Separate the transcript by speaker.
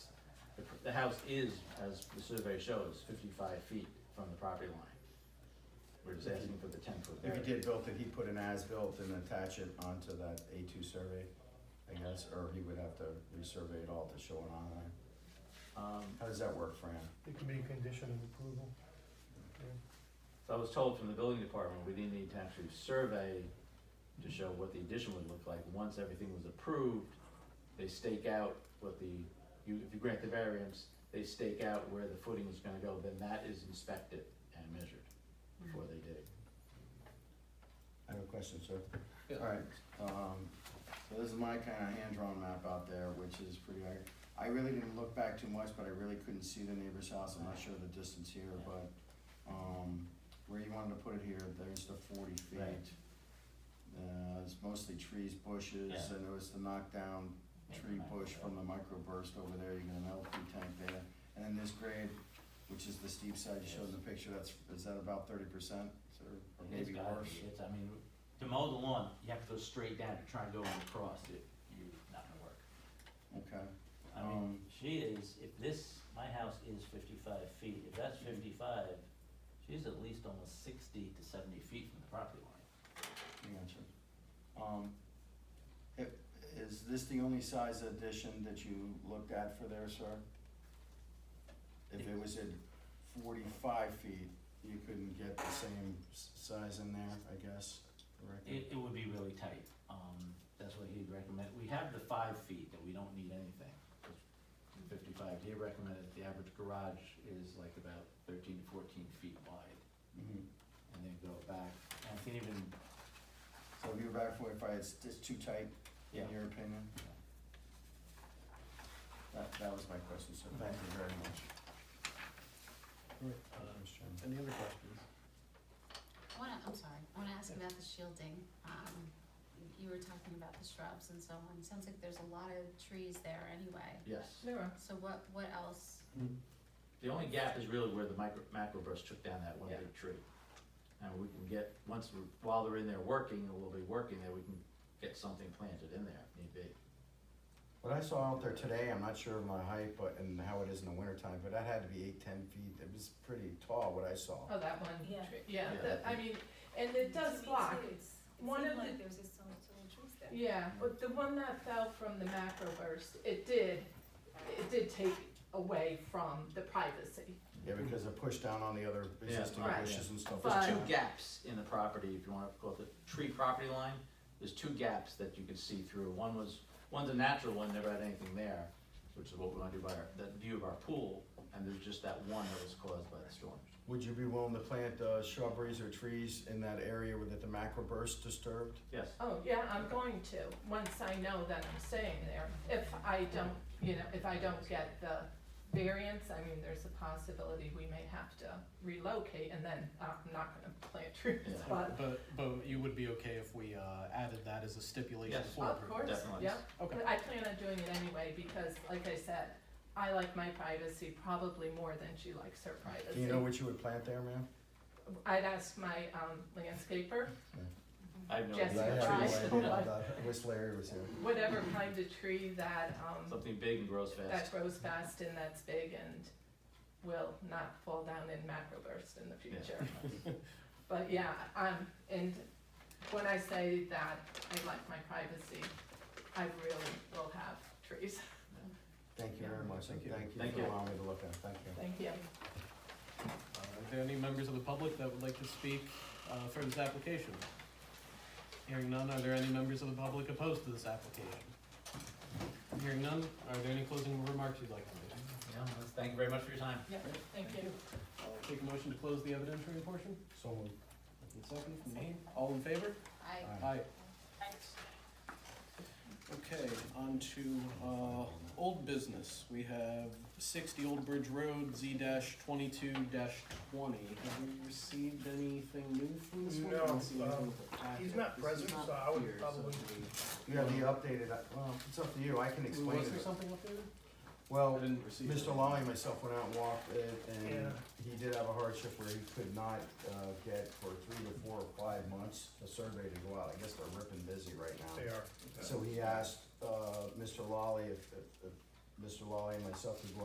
Speaker 1: the house is, as the survey shows, fifty-five feet from the property line. We're just asking for the ten-foot
Speaker 2: If he
Speaker 1: variance.
Speaker 2: did build it, he'd put an as-built and attach it onto that A two survey, I guess, or he would have to resurvey it all to show it online.
Speaker 1: Um,
Speaker 2: How does that work, Fran?
Speaker 3: It can be a condition of approval.
Speaker 1: so I was told from the building department, we didn't need to actually survey to show what the addition would look like. Once everything was approved, they stake out what the, you, if you grant the variance, they stake out where the footing is gonna go, then that is inspected and measured before they dig.
Speaker 2: I have a question, sir.
Speaker 4: Yeah.
Speaker 2: Alright, um, so this is my kinda hand-drawn map out there, which is pretty, I, I really didn't look back too much, but I really couldn't see the neighbor's house, I'm not sure the distance here, but, um, where you wanted to put it here, there's the forty feet.
Speaker 1: Right.
Speaker 2: Uh, it's mostly trees, bushes,
Speaker 1: Yeah.
Speaker 2: and there was the knockdown tree bush from the microburst over there, you got an LP tank there. And then this grade, which is the steep side you showed in the picture, that's, is that about thirty percent, or or
Speaker 4: It's
Speaker 2: maybe
Speaker 4: gotta
Speaker 2: worse?
Speaker 4: be, it's, I mean, to mow the lawn, you have to go straight down, to try and go across it, you're not gonna work.
Speaker 2: Okay,
Speaker 4: I mean,
Speaker 2: Um,
Speaker 4: she is, if this, my house is fifty-five feet, if that's fifty-five, she's at least almost sixty to seventy feet from the property line.
Speaker 2: I got you. Um, i- is this the only size addition that you looked at for there, sir? If it was at forty-five feet, you couldn't get the same s- size in there, I guess, correct?
Speaker 4: It, it would be really tight, um, that's what he'd recommend, we have the five feet that we don't need anything, 'cause fifty-five, he recommended the average garage is like about thirteen to fourteen feet wide,
Speaker 2: Mhm.
Speaker 4: and then go back, and I think even
Speaker 2: So if you're back forty-five, it's just too tight, in
Speaker 4: Yeah.
Speaker 2: your opinion? That, that was my question, sir, thank you very much. Uh,
Speaker 5: Any other questions?
Speaker 6: I wanna, I'm sorry, I wanna ask about the shielding. Um, you were talking about the shrubs and so on. Sounds like there's a lot of trees there anyway.
Speaker 1: Yes.
Speaker 5: There are.
Speaker 6: So what, what else?
Speaker 1: The only gap is really where the micro, macroburst took down that one big tree. And we can get, once, we're- while they're in there working, or we'll be working there, we can get something planted in there, if need be.
Speaker 2: What I saw out there today, I'm not sure of my height, but, and how it is in the wintertime, but that had to be eight, ten feet, it was pretty tall, what I saw.
Speaker 5: Oh, that one.
Speaker 7: Yeah.
Speaker 5: tree. Yeah,
Speaker 1: Yeah.
Speaker 5: that- I mean, and it does block. One
Speaker 7: One
Speaker 5: of
Speaker 7: of
Speaker 5: the-
Speaker 7: like there's just so much little trees there.
Speaker 5: Yeah, but the one that fell from the macro burst, it did, it did take away from the privacy.
Speaker 2: Yeah, because it pushed down on the other existing
Speaker 5: Right.
Speaker 2: bushes and stuff.
Speaker 5: But-
Speaker 1: There's two gaps in the property, if you wanna call it the tree property line, there's two gaps that you can see through. One was, one's a natural one, never had anything there, which is what we wanna do by our, that view of our pool, and there's just that one that was caused by the storm.
Speaker 2: Would you be willing to plant, uh, shrubberies or trees in that area where that the macro burst disturbed?
Speaker 1: Yes,
Speaker 5: Oh, yeah, I'm going to, once I know that I'm staying there. If I don't, you know, if I don't get the variance, I mean, there's a possibility we may have to relocate and then uh, I'm not gonna plant trees,
Speaker 1: Yeah.
Speaker 5: but
Speaker 8: But, but you would be okay if we, uh, added that as a stipulation
Speaker 1: Yes.
Speaker 8: for
Speaker 5: of
Speaker 8: approval?
Speaker 5: course,
Speaker 1: definitely.
Speaker 5: yeah.
Speaker 8: Okay,
Speaker 5: But I plan on doing it anyway because, like I said, I like my privacy probably more than she likes her privacy.
Speaker 2: Do you know what you would plant there, ma'am?
Speaker 5: I'd ask my um, landscaper,
Speaker 1: I have no
Speaker 5: Yes,
Speaker 2: I
Speaker 5: you're
Speaker 1: idea.
Speaker 2: have no
Speaker 5: right.
Speaker 2: idea about that. I wish Larry was here.
Speaker 5: whatever kind of tree that um,
Speaker 1: Something big and grows fast.
Speaker 5: that grows fast and that's big and will not fall down in macro bursts in the
Speaker 1: Yeah.
Speaker 5: future. But yeah, um, and when I say that I like my privacy, I really will have trees.
Speaker 2: Thank you very much, and
Speaker 8: Thank you.
Speaker 2: thank
Speaker 1: Thank you.
Speaker 2: you for allowing me to look at, it. thank you.
Speaker 5: Thank you.
Speaker 8: Uh, are there any members of the public that would like to speak, uh, for this application? Hearing none, are there any members of the public opposed to this application? Hearing none, are there any closing remarks you'd like to make?
Speaker 1: Yeah, well, thank you very much for your time.
Speaker 5: Yeah, thank you.
Speaker 8: I'll take a motion to close the evidentiary portion,
Speaker 2: So moved.
Speaker 8: and second from me, all in favor?
Speaker 6: I,
Speaker 2: Aye.
Speaker 8: Aye. Okay, on to, uh, old business. We have sixty Old Bridge Road, Z dash twenty-two dash twenty. Have we received anything new from this one? I don't see
Speaker 3: No,
Speaker 8: anything
Speaker 3: um,
Speaker 8: with the packet.
Speaker 3: he's not
Speaker 8: This is
Speaker 3: present,
Speaker 8: not
Speaker 3: so I would
Speaker 8: here, so
Speaker 3: probably-
Speaker 2: You have the updated, uh, well, it's up to you, I can
Speaker 8: do we-
Speaker 2: explain
Speaker 8: Was there
Speaker 2: it. Oh,
Speaker 8: something updated? I
Speaker 2: Well,
Speaker 8: didn't receive.
Speaker 2: Mr.
Speaker 8: it.
Speaker 2: Lally and myself went out and walked it,
Speaker 3: Yeah.
Speaker 2: and he did have a hardship where he could not, uh, get for three to four or five months a survey to go out, I guess they're ripping busy right
Speaker 3: They
Speaker 2: now.
Speaker 3: are.
Speaker 2: So he asked, uh, Mr. Lally if, if, if Mr. Lally and myself could go